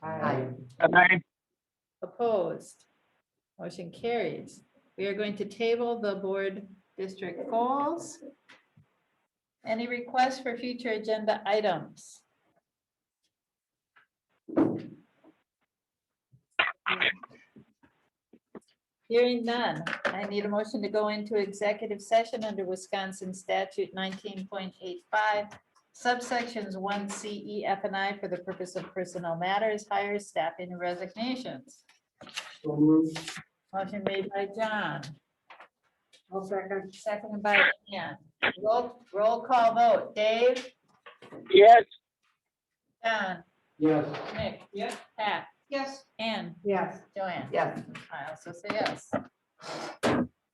Aye. Aye. Opposed? Motion carries. We are going to table the board district goals. Any requests for future agenda items? Hearing none, I need a motion to go into executive session under Wisconsin statute nineteen point eight five subsections one C, E, F, and I for the purpose of personnel matters, hires, staffing, and resignations. So moved. Motion made by John, I'll second. seconded by Ann. Roll, roll call vote. Dave, Yes. John, Yes. Nick. Yes. Pat. Yes. Ann, Yes. Joanne. Yes. I also say yes.